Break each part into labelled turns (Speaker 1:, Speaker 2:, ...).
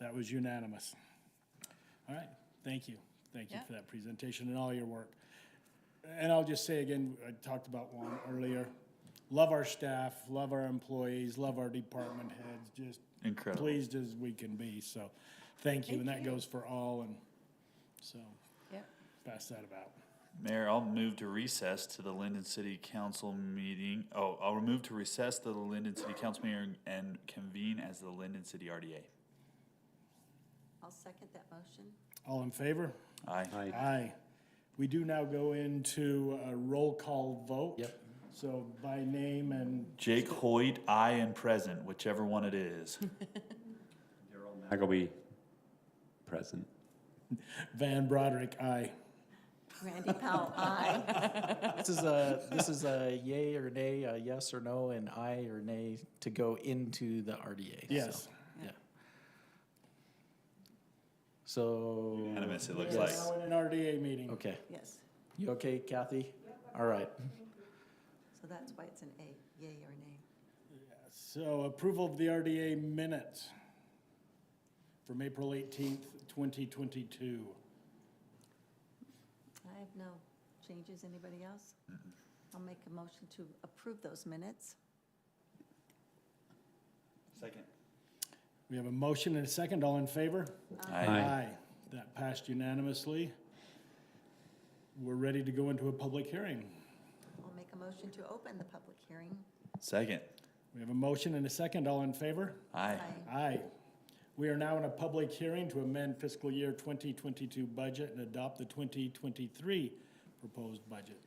Speaker 1: That was unanimous. All right, thank you. Thank you
Speaker 2: Yeah.
Speaker 1: for that presentation and all your work. And I'll just say again, I talked about one earlier. Love our staff, love our employees, love our department heads, just
Speaker 3: Incredible.
Speaker 1: pleased as we can be. So, thank you. And that goes for all and so
Speaker 2: Yep.
Speaker 1: pass that about.
Speaker 3: Mayor, I'll move to recess to the Linden City Council meeting. Oh, I'll move to recess to the Linden City Council meeting and convene as the Linden City RDA.
Speaker 2: I'll second that motion.
Speaker 1: All in favor?
Speaker 3: Aye.
Speaker 1: Aye. We do now go into a roll call vote. Yep. So by name and
Speaker 3: Jake Hoyt, aye and present, whichever one it is.
Speaker 4: Haggleby, present.
Speaker 1: Van Broderick, aye.
Speaker 2: Randy Powell, aye.
Speaker 5: This is a, this is a yay or nay, a yes or no, and aye or nay to go into the RDA. so,
Speaker 1: Yes.
Speaker 5: Yeah. So.
Speaker 3: Unanimous, it looks like.
Speaker 5: Yes.
Speaker 1: Now in an RDA meeting.
Speaker 5: Okay.
Speaker 2: Yes.
Speaker 5: You okay, Kathy? All right.
Speaker 2: So that's why it's an A, yay or nay.
Speaker 1: So approval of the RDA minutes from April eighteenth, twenty twenty-two.
Speaker 2: I have no changes. Anybody else? I'll make a motion to approve those minutes.
Speaker 3: Second.
Speaker 1: We have a motion and a second. All in favor?
Speaker 3: Aye.
Speaker 1: That passed unanimously. We're ready to go into a public hearing.
Speaker 2: I'll make a motion to open the public hearing.
Speaker 3: Second.
Speaker 1: We have a motion and a second. All in favor?
Speaker 3: Aye.
Speaker 1: Aye. We are now in a public hearing to amend fiscal year 2022 budget and adopt the 2023 proposed budget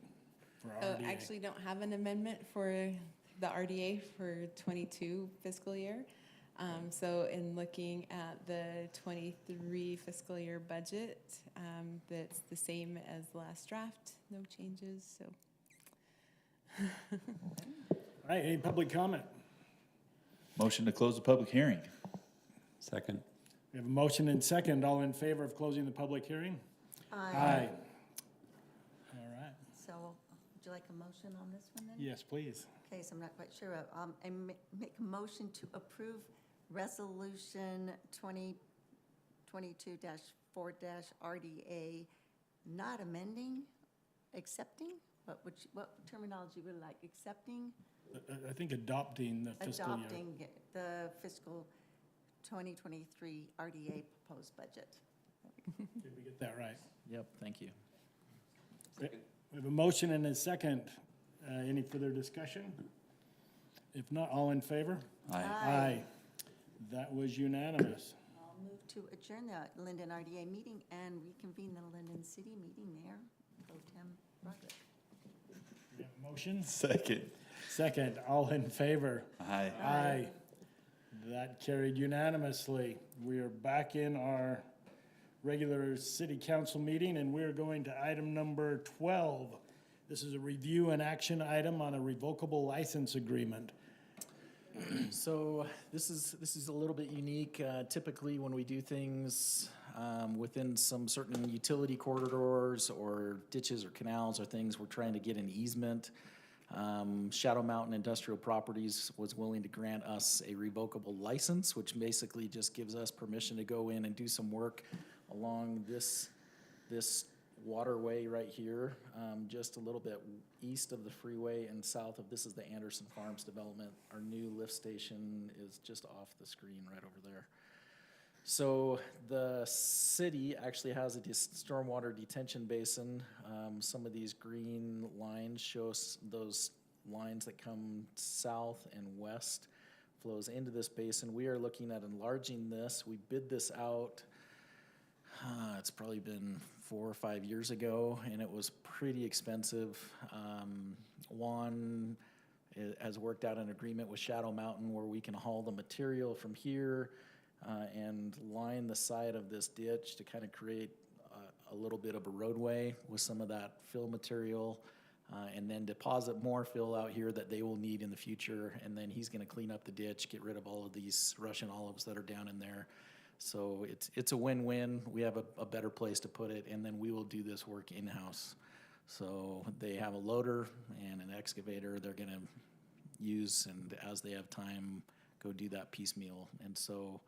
Speaker 1: for
Speaker 6: Oh,
Speaker 1: RDA.
Speaker 6: actually don't have an amendment for the RDA for twenty-two fiscal year. Um, so in looking at the twenty-three fiscal year budget, um, that's the same as last draft, no changes, so.
Speaker 1: All right, any public comment?
Speaker 3: Motion to close the public hearing.
Speaker 4: Second.
Speaker 1: We have a motion and second. All in favor of closing the public hearing? Aye. All right,
Speaker 2: So would you like a motion on this one then?
Speaker 1: yes, please.
Speaker 2: Okay, so I'm not quite sure. of, Um, I ma- make a motion to approve resolution twenty twenty-two four RDA, not amending, accepting? What would, you- what terminology would you like? Accepting,
Speaker 1: I- I- I think adopting the fiscal year.
Speaker 2: adopting the fiscal twenty twenty-three RDA proposed budget.
Speaker 1: Did we get that right?
Speaker 5: Yep, thank you.
Speaker 1: We have a motion and a second. Uh, Any further discussion? If not, all in favor?
Speaker 3: Aye.
Speaker 1: Aye. That was unanimous.
Speaker 2: I'll move to adjourn the Linden RDA meeting and reconvene the Linden City meeting there. Pro Tem Roderick.
Speaker 1: We have Motions?
Speaker 3: Second.
Speaker 1: Second, all in favor?
Speaker 3: Aye.
Speaker 1: Aye. That carried unanimously. We are back in our regular city council meeting, and we're going to item number 12. This is a review and action item on a revocable license agreement.
Speaker 5: So this is, this is a little bit unique. Uh, Typically, when we do things um, within some certain utility corridors or ditches or canals or things, we're trying to get an easement. Um, Shadow Mountain Industrial Properties was willing to grant us a revocable license, which basically just gives us permission to go in and do some work along this, this waterway right here, um, just a little bit east of the freeway and south of, this is the Anderson Farms development. Our new lift station is just off the screen right over there. So the city actually has a dis- stormwater detention basin. Um, some of these green lines show us those lines that come south and west flows into this basin. We are looking at enlarging this. We bid this out. Uh, it's probably been four or five years ago, and it was pretty expensive. Um, Juan i- has worked out an agreement with Shadow Mountain where we can haul the material from here uh, and line the side of this ditch to kind of create a, a little bit of a roadway with some of that fill material. Uh, and then deposit more fill out here that they will need in the future. And then he's going to clean up the ditch, get rid of all of these Russian olives that are down in there. So it's, it's a win-win. We have a, a better place to put it, and then we will do this work in-house. So they have a loader and an excavator they're gonna use, and as they have time, go do that piecemeal. And so